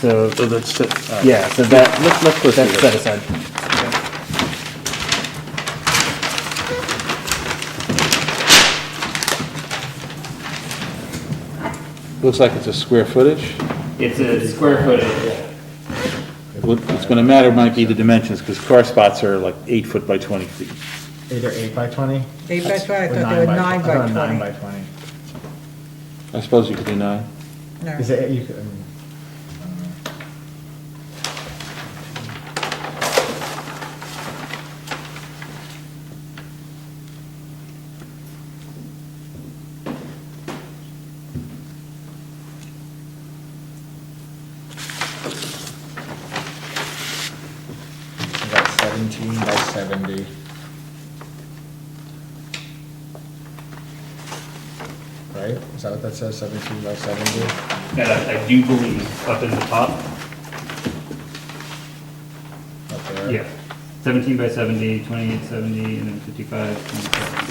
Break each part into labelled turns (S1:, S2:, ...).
S1: So,
S2: So that's, uh,
S1: yeah, so that,
S2: let's, let's proceed.
S1: that's set aside.
S3: Looks like it's a square footage.
S1: It's a square footage.
S3: What- What's going to matter might be the dimensions, because car spots are like eight foot by 20 feet.
S4: Eight or eight by twenty?
S5: Eight by twenty, I
S4: Or
S5: thought they were
S4: I
S5: nine
S4: thought
S5: by
S4: Nine
S5: twenty.
S4: by twenty.
S3: I suppose you could do nine.
S5: No.
S4: Is it, you could, I mean, about seventeen by seventy. Right? Is that what that says, seventeen by seventy?
S2: Uh, I do believe up in the top,
S4: Up there?
S2: yeah, seventeen by 70, 28, 70, and then fifty-five, twenty-seven.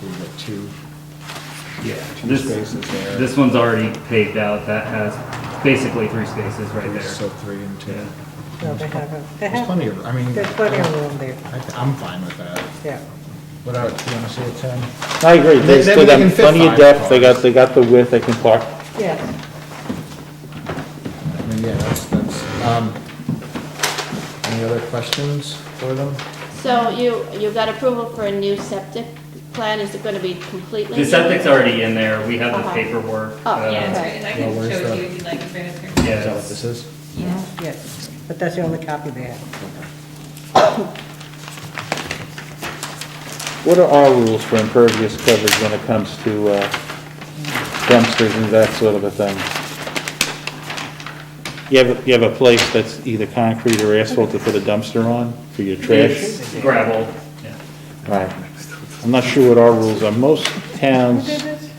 S4: So you got two.
S2: Yeah,
S4: Two
S2: this,
S4: spaces there.
S2: this one's already paved out, that has basically three spaces right
S4: There's
S2: there.
S4: still three and two.
S2: Yeah.
S5: No, they haven't. They
S4: There's
S5: have,
S4: plenty of, I mean.
S5: there's plenty of room there,
S4: I th- I'm fine with that.
S5: yeah.
S4: What about, do you wanna see a ten?
S3: I agree.
S4: They-
S3: They
S4: they
S3: still
S4: can
S3: got
S4: fit
S3: plenty of
S4: five
S3: depth, they
S4: cars.
S3: got, they got the width, they can park.
S5: Yes,
S4: I mean, yeah, that's, that's, um, any other questions for them?
S6: So you, you got approval for a new septic plan, is it gonna be completely?
S2: The septic's already in there, we have the
S6: Uh-huh.
S2: paperwork.
S6: Oh,
S2: uh,
S6: yeah,
S7: Yeah, it's great, and I
S4: Well,
S7: can
S4: where's
S7: show it to
S4: the-
S7: you if you'd like, it's right up here.
S4: Is that what
S2: Yes,
S4: this is?
S7: Yeah.
S5: yes, but that's the only copy they have.
S3: What are our rules for impervious coverage when it comes to uh, dumpsters and that sort of a thing? You have, you have a place that's either concrete or asphalt to put a dumpster on for your trash?
S2: it's gravel, yeah.
S3: Right. I'm not sure what our rules are. Most towns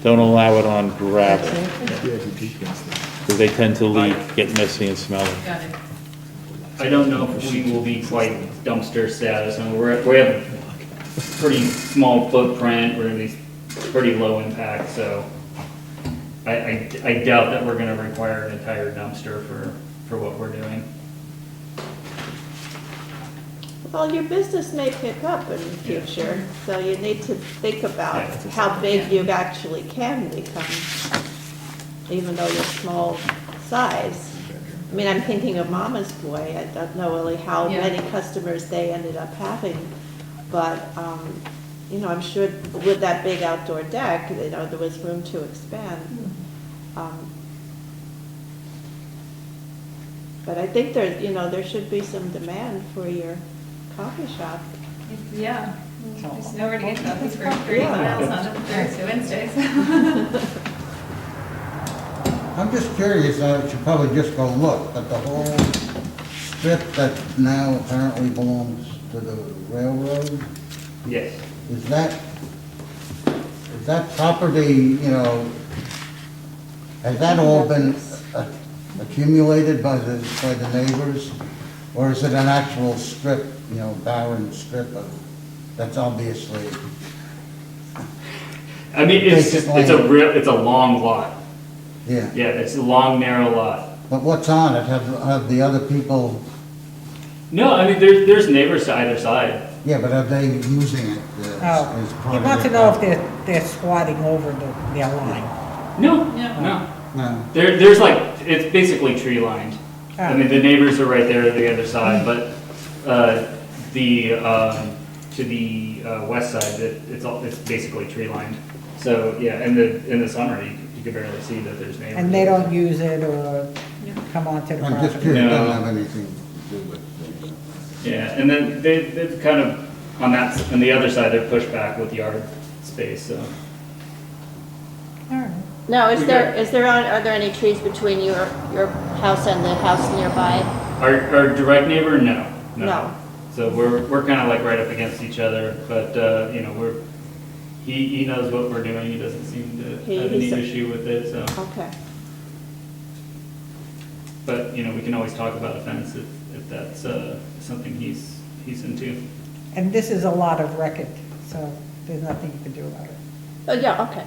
S3: don't allow it on gravel.
S4: Yeah, if you peek against it.
S3: because they tend to leak, get messy and smelly.
S7: Got it.
S2: I don't know if we will be quite dumpster status, and we're, we have pretty small footprint, we're gonna be pretty low impact, so I, I, I doubt that we're gonna require an entire dumpster for, for what we're doing.
S6: Well, your business may pick up in the
S2: Yeah.
S6: future, so you need to think about
S2: Yeah.
S6: how big you actually can become, even though you're small size. I mean, I'm thinking of Mama's Boy, I don't know really how
S7: Yeah.
S6: many customers they ended up having, but, um, you know, I'm sure with that big outdoor deck, you know, there was room to expand. Um, But I think there, you know, there should be some demand for your coffee shop.
S7: It's- Yeah, there's nowhere to get to, it's for three
S6: Yeah.
S7: miles on a Thursday, Wednesday, so.
S8: I'm just curious, I should probably just go look, but the whole strip that now apparently belongs to the railroad,
S2: Yes.
S8: is that, is that property, you know, has that all been uh, accumulated by the, by the neighbors? Or is it an actual strip, you know, barren strip of, that's obviously,
S2: I mean, it's, just- it's a real, it's a long lot,
S8: yeah.
S2: yeah, it's a long, narrow lot.
S8: But what's on it? Have, have the other people,
S2: No, I mean, there's, there's neighbors to either side.
S8: yeah, but are they using it uh, as as
S5: Oh,
S8: part
S5: you
S8: of
S5: want to
S8: their
S5: know if
S8: property?
S5: they're, they're squatting over the, their line.
S2: No,
S7: Yeah.
S2: no.
S8: No,
S2: There, there's like, it's basically tree lined.
S5: Ah.
S2: I mean, the neighbors are right there to the other side, but, uh, the, um, to the, uh, west side, it, it's all, it's basically tree lined. So, yeah, in the, in the summer, you, you can barely see that there's neighbors.
S5: And they don't use it or
S7: Yeah.
S5: come onto the
S8: I'm just
S5: property.
S8: curious, it
S2: No.
S8: doesn't have anything to do with,
S2: Yeah, and then they, they've kind of, on that, s- on the other side, they're pushed back with yard space, so.
S5: All right.
S6: No, is
S2: We
S6: there,
S2: got-
S6: is there, on- are there any trees between your, your house and the house nearby?
S2: Our, our direct neighbor, no,
S6: No.
S2: no. So we're, we're kind of like right up against each other, but, uh, you know, we're, he, he knows what we're doing, he doesn't seem to
S6: He-
S2: have any
S6: he's a-
S2: issue with it, so.
S6: Okay.
S2: But, you know, we can always talk about a fence if, if that's, uh, something he's, he's into.
S5: And this is a lot of record, so there's nothing you can do about it.
S6: Oh, yeah, okay.